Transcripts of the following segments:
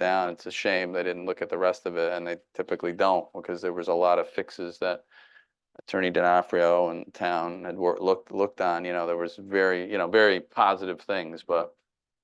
down. It's a shame they didn't look at the rest of it, and they typically don't, because there was a lot of fixes that Attorney DiNaprio and town had wor- looked, looked on, you know, there was very, you know, very positive things, but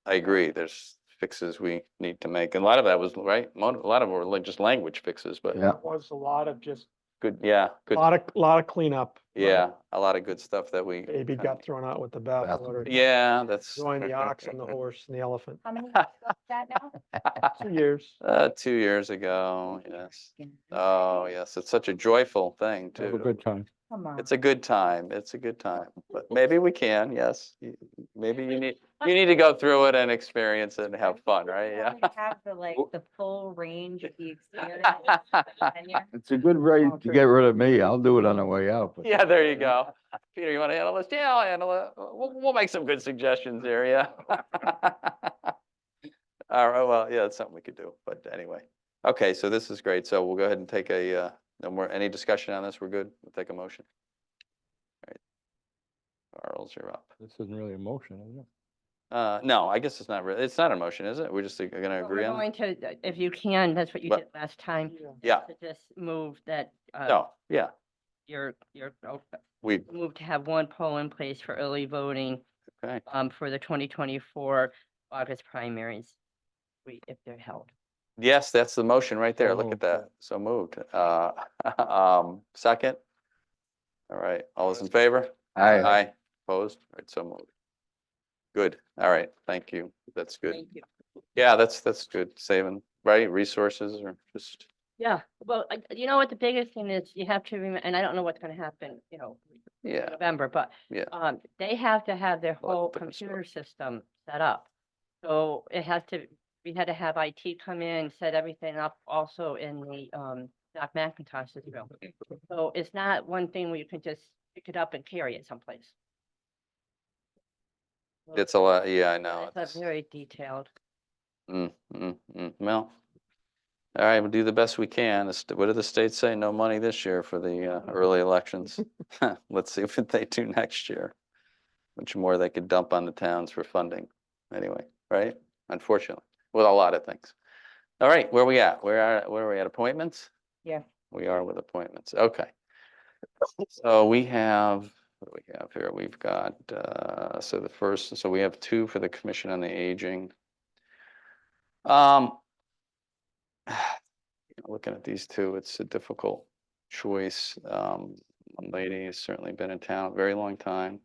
I agree, there's fixes we need to make. And a lot of that was, right, mo- a lot of them were like just language fixes, but Yeah. was a lot of just, good, yeah, a good, lot of, lot of cleanup. uh, yeah, a lot of good stuff that we. Baby kinda- got thrown out with the bathwater. Yeah, that's. Join the ox and the horse and the elephant. How many years ago was that now? Two years. Uh, two years ago, yes. Yeah. Oh, yes, it's such a joyful thing Have a too. good time. Come on. It's a good time. It's a good time, but maybe we can, yes. You- Maybe you need, you need to go through it and experience it and have fun, right? I Yeah. would Have the like, the full range of the experience. and tenure. It's a good way All to true. get rid of me. I'll do it on the way out. but- Yeah, there you go. Peter, you want to handle this? Yeah, I'll handle it. We'll, we'll make some good suggestions here, yeah. All right, well, yeah, it's something we could do, but anyway. Okay, so this is great. So we'll go ahead and take a, uh, no more, any discussion on this? We're good? We'll take a motion. All right. Charles, you're up. This isn't really a motion, is it? Uh, no, I guess it's not really, it's not a motion, is it? We're just uh, gonna But we're agree on it? Going to, uh, if you can, that's what you What- did last time. Yeah. Yeah, To just move that, uh, no, yeah, your, your, oh, we, move to have one poll in place for early voting, okay, um, for the twenty twenty-four August primaries. We, if they're held. yes, that's the motion right there. Look moved, at yeah. that. So moved. Uh, um, second? All right, all those in favor? I, Aye, opposed, All right, so moved. Good, all right, thank you, that's good. Thank you. Yeah, that's, that's good, saving, right, resources or just, Yeah, well, I- you know what, the biggest thing is you have to remember, and I don't know what's gonna happen, you know, in yeah, November, but Yeah. um, they have to have their Well, whole the consult- computer system set up. So it has to, we had to have IT come in, set everything up also in the um, Doc McIntosh system. So it's not one thing where you can just pick it up and carry it someplace. it's a lot, yeah, I know. It's a very detailed. Mm, mm, mm, well. All right, we'll do the best we can. The st- What did the state say? No money this year for the uh, early elections. Let's see what they do next year. Much more they could dump on the towns for funding, anyway, right? Unfortunately, with a lot of things. All right, where we at? Where are, where are we at? Appointments? Yeah. We are with appointments, okay. So we have, what do we have here? We've got, uh, so the first, so we have two for the Commission on the Aging. Um. Looking at these two, it's a difficult choice. Um, one lady has certainly been in town a very long time.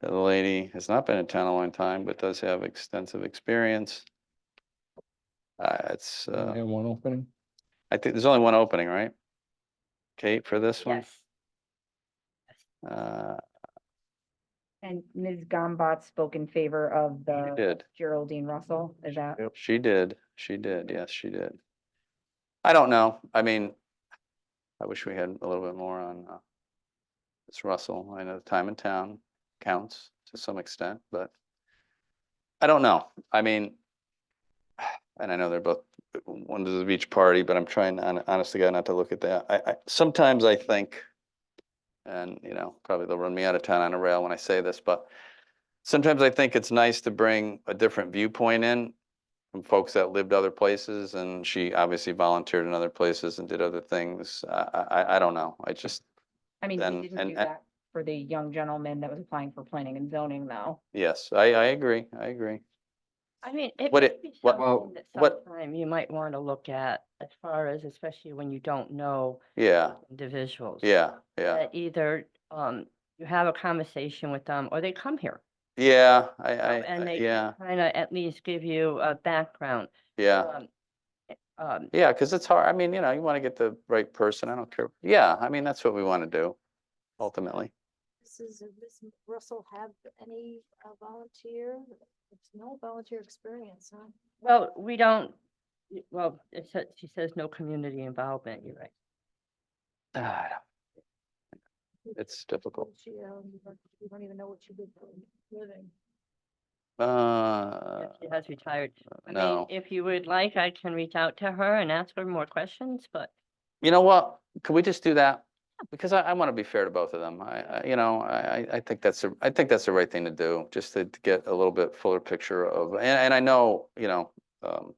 The other lady has not been in town a long time, but does have extensive experience. Uh, it's, I uh, have one opening. I think there's only one opening, right? Kate, for this one? Yes. Uh, And Ms. Gombach spoke in favor of she the did. Geraldine Russell, is that? She did. She did. Yes, she did. I don't know. I mean, I wish we had a little bit more on uh, Ms. Russell. I know the time in town counts to some extent, but I don't know. I mean, and I know they're both wonders of each party, but I'm trying hon- honestly God, not to look at that. I, I, sometimes I think, and you know, probably they'll run me out of town on a rail when I say this, but sometimes I think it's nice to bring a different viewpoint in from folks that lived other places and she obviously volunteered in other places and did other things. I, I, I- I don't know. I just, I mean, Then- we didn't and- do and- that for the young gentleman that was applying for planning and zoning though. yes, I, I agree. I agree. I mean, it What what it- be what- something that what- sometime you might want to look at as far as, especially when you don't know Yeah, individuals. yeah, yeah. That either, um, you have a conversation with them or they come here. Yeah, I, I, and I- they- yeah, Kind of at least give you a background. yeah. um, eh, Um, Yeah, because it's hard. I mean, you know, you want to get the right person. I don't care. Yeah, I mean, that's what we want to do ultimately. Mrs. and uh, Ms. Russell have any uh, volunteer? It's No volunteer experience, huh? well, we don't, y- well, it says, she says no community involvement, you're right. Ah, I don't- It's difficult. She, um, you don't even know what she did for a living. Uh, She has retired. I mean, no. If you would like, I can reach out to her and ask her more questions, but You know what? Could we just do that? Because I, I want to be fair to both of them. I, I, you know, I, I- I think that's, a- I think that's the right thing to do, just to to get a little bit fuller picture of, and, and I know, you know, um,